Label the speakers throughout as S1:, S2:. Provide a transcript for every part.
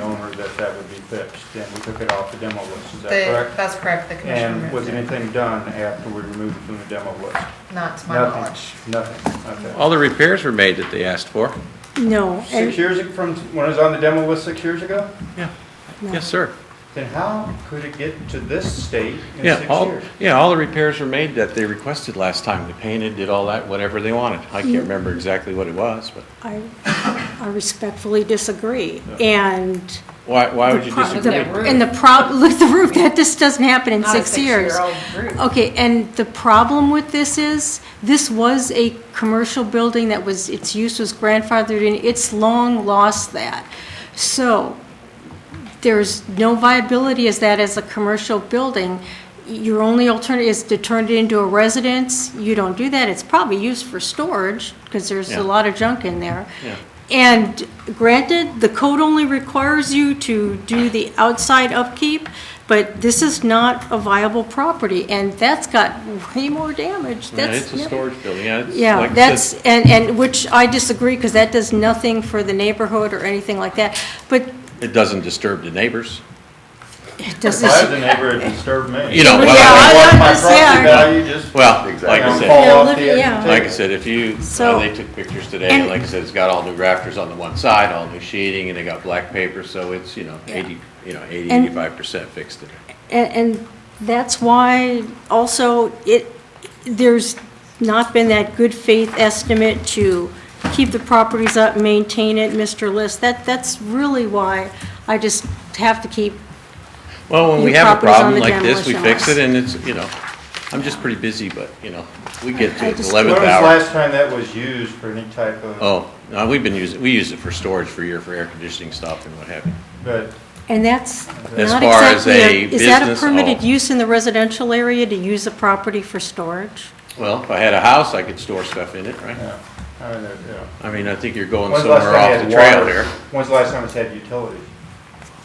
S1: owner that that would be fixed, and we took it off the demo list, is that
S2: The,
S1: correct?
S2: that's correct, the commission
S1: And was
S2: removed it,
S1: anything done after we removed it from the demo list?
S2: not to my
S1: Nothing.
S2: knowledge.
S1: Nothing, okay.
S3: All the repairs were made that they asked for.
S4: No,
S1: Six
S4: and,
S1: years, ag- from when it was on the demo list six years ago?
S4: no.
S3: Yes, sir.
S1: Then how could it get to this state in
S3: Yeah, oh.
S1: six
S3: all,
S1: years?
S3: yeah, all the repairs were made that they requested last time. They painted, did all that, whatever they wanted. I
S4: Mm-hmm.
S3: can't remember exactly what it was, but
S4: I, I respectfully disagree. And
S3: why, why would you
S4: pro-
S3: disagree?
S4: the- And the prob, look, at the roof, that just doesn't happen in
S2: Not a
S4: six years.
S2: six-year-old group.
S4: Okay, and the problem with this is, this was a commercial building that was, its use was grandfathered in, it's long lost that. So, there's no viability as that as a commercial building. Your only alternative is to turn it into a residence. You don't do that. It's probably used for storage because there's
S3: Yeah.
S4: a lot of junk in there.
S3: Yeah.
S4: And granted, the code only requires you to do the outside upkeep, but this is not a viable property and that's got way more damage.
S3: Yeah,
S4: That's
S3: It's a
S4: never-
S3: storage building, yeah. it's
S4: yeah,
S3: like I
S4: that's,
S3: said,
S4: and, and which I disagree because that does nothing for the neighborhood or anything like that. But
S3: It doesn't disturb the neighbors.
S4: it
S1: If
S4: doesn't.
S1: I was the neighbor, it disturbed me.
S3: You know,
S1: If I
S4: Yeah,
S1: want
S4: I-
S1: My
S4: I'm just- yeah.
S1: property value just.
S3: Well,
S1: you
S3: like
S1: know,
S3: I said,
S1: fall
S4: Yeah,
S1: off the
S4: living-
S1: edge of
S4: yeah.
S1: the
S3: like I
S1: table.
S3: said, if you, uh,
S4: So-
S3: they took pictures today,
S4: And-
S3: like I said, it's got all new rafters on the one side, all new sheeting, and they got black paper, so it's, you know, eighty, you know, eighty,
S4: And-
S3: eighty-five percent fixed today.
S4: And, and that's why also it, there's not been that good faith estimate to keep the properties up, maintain it, Mr. List. That, that's really why I just have to keep,
S3: Well, when we
S4: New
S3: have a
S4: properties on
S3: problem
S4: the
S3: like this, we
S4: demolition
S3: fix it,
S4: lots.
S3: and it's, you know, I'm just pretty busy, but, you know, we get
S4: I
S3: to the
S4: just-
S1: When was
S3: eleventh
S1: the
S3: hour.
S1: last time that was used for any type of,
S3: Oh, no, we've been using, we use it for storage for year, for air conditioning stuff and what have you.
S1: but
S4: and that's
S3: As
S4: not
S3: far as
S4: exactly,
S3: a
S4: a- is that a
S3: business,
S4: permitted
S3: oh.
S4: use in the residential area to use a property for storage?
S3: Well, if I had a house, I could store stuff in it, right?
S1: yeah, I mean, uh, yeah.
S3: I mean, I think you're going
S1: When's the last
S3: somewhere
S1: time it
S3: off
S1: had
S3: the trail
S1: water?
S3: there.
S1: When's the last time it's had utilities?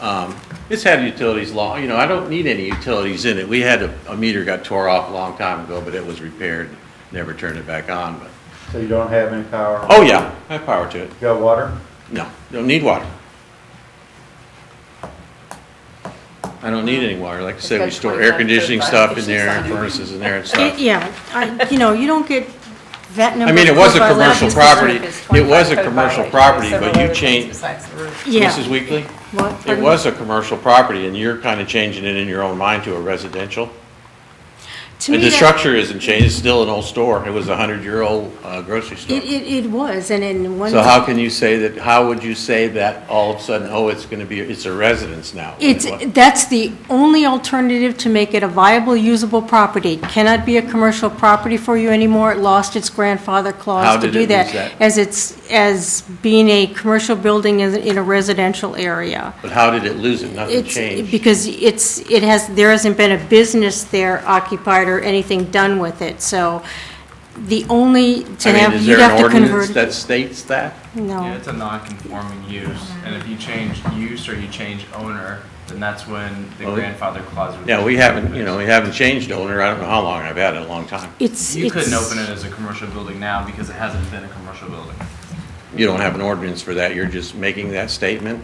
S3: Um, It's had utilities long, you know, I don't need any utilities in it. We had, a a meter got tore off a long time ago, but it was repaired, never turned it back on, but,
S1: So you don't have any power?
S3: oh, yeah, I have power to it.
S1: You got water?
S3: No, don't need water. I don't need any water. Like I said, we
S2: Because
S3: store
S2: we
S3: air
S2: have
S3: conditioning
S2: to buy
S3: stuff in
S2: kitchen
S3: there and
S2: side.
S3: furnaces in there and
S4: It-
S3: stuff.
S4: Yeah, I, you know, you don't get that number.
S3: I mean, it
S4: of
S3: was a
S4: code violations.
S3: commercial property. It was a commercial property, but you changed, Mrs.
S4: Yeah.
S3: Weekly,
S4: What?
S3: it
S4: Pardon?
S3: was a commercial property and you're kind of changing it in your own mind to a residential.
S4: To
S3: And
S4: me,
S3: the
S4: that-
S3: structure isn't changed. It's still an old store. It was a hundred-year-old uh, grocery store.
S4: It, it, it was, and in one.
S3: So how can you say that, how would you say that all of a sudden, oh, it's going to be, it's a residence now? when it
S4: It's,
S3: wasn't?
S4: that's the only alternative to make it a viable, usable property. It Cannot be a commercial property for you anymore. It lost its grandfather
S3: How
S4: clause to
S3: did
S4: do
S3: it
S4: that.
S3: lose that?
S4: As it's, as being a commercial building in, in a residential area.
S3: But how did it lose it? Nothing
S4: It's,
S3: changed.
S4: because it's, it has, there hasn't been a business there occupied or anything done with it, so the only, to
S3: I mean,
S4: have,
S3: is
S4: you'd
S3: there
S4: have
S3: an
S4: to
S3: ordinance
S4: convert.
S3: that states that?
S5: Yeah,
S4: No,
S5: it's a non-conforming use, and if you change use or you change owner, then that's when the
S3: Well,
S5: grandfather clause would.
S3: Yeah, we haven't, you know, we haven't changed owner, I don't know how long, I've had it a long time.
S4: it's, it's.
S5: You couldn't open it as a commercial building now because it hasn't been a commercial building.
S3: You don't have an ordinance for that, you're just making that statement?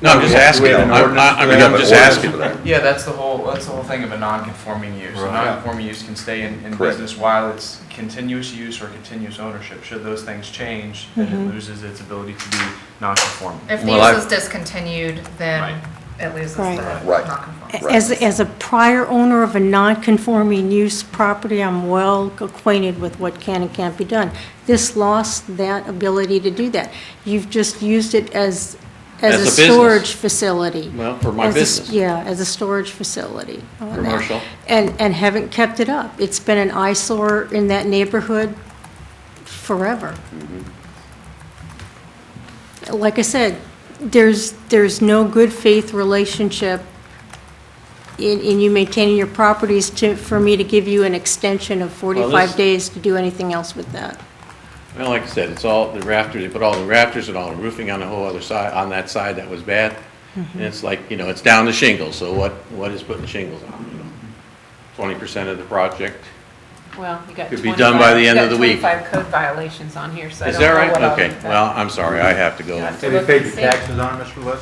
S3: No, I'm just
S6: Do we
S3: asking,
S6: have an
S3: I
S6: ordinance
S3: I- I
S6: for
S3: mean,
S6: that?
S3: I'm just
S6: Ordinance
S3: asking.
S6: for that?
S5: Yeah, that's the whole, that's the whole thing of a non-conforming use. A
S6: Right.
S5: non-conforming use can stay in, in
S6: Correct.
S5: business while it's continuous use or continuous ownership. Should those things change, then
S4: Mm-hmm.
S5: it loses its ability to be non-conforming.
S2: If the
S3: Well, I-
S2: use is discontinued, then
S5: Right.
S2: it loses the
S4: Right.
S6: Right.
S2: non-conformance.
S4: As, as a prior owner of a non-conforming use property, I'm well acquainted with what can and can't be done. This lost that ability to do that. You've just used it as,
S3: As a
S4: as a
S3: business.
S4: storage facility.
S3: Well, for my
S4: As a s-
S3: business.
S4: Yeah, as a storage facility. on that.
S3: Commercial.
S4: And, and haven't kept it up. It's been an eyesore in that neighborhood forever. Like I said, there's, there's no good faith relationship in, in you maintaining your properties to, for me to give you an extension of
S3: Well,
S4: 45
S3: this-
S4: days to do anything else with that.
S3: Well, like I said, it's all, the rafters, they put all the rafters and all the roofing on the whole other side, on that side that was bad. And it's like, you know, it's down to shingles, so what, what is putting shingles on? Twenty percent of the project,
S6: Well, you got
S3: Could be done by
S6: 25
S3: the
S6: you
S3: end
S6: got
S3: of the week.
S6: 25 code violations on here, so I
S3: Is
S6: don't
S3: that
S6: know
S3: right?
S6: what all
S3: Okay,
S6: these are.
S3: well, I'm sorry, I have to go.
S6: Yeah.
S1: Have you paid your taxes on it, Mr. Lewis?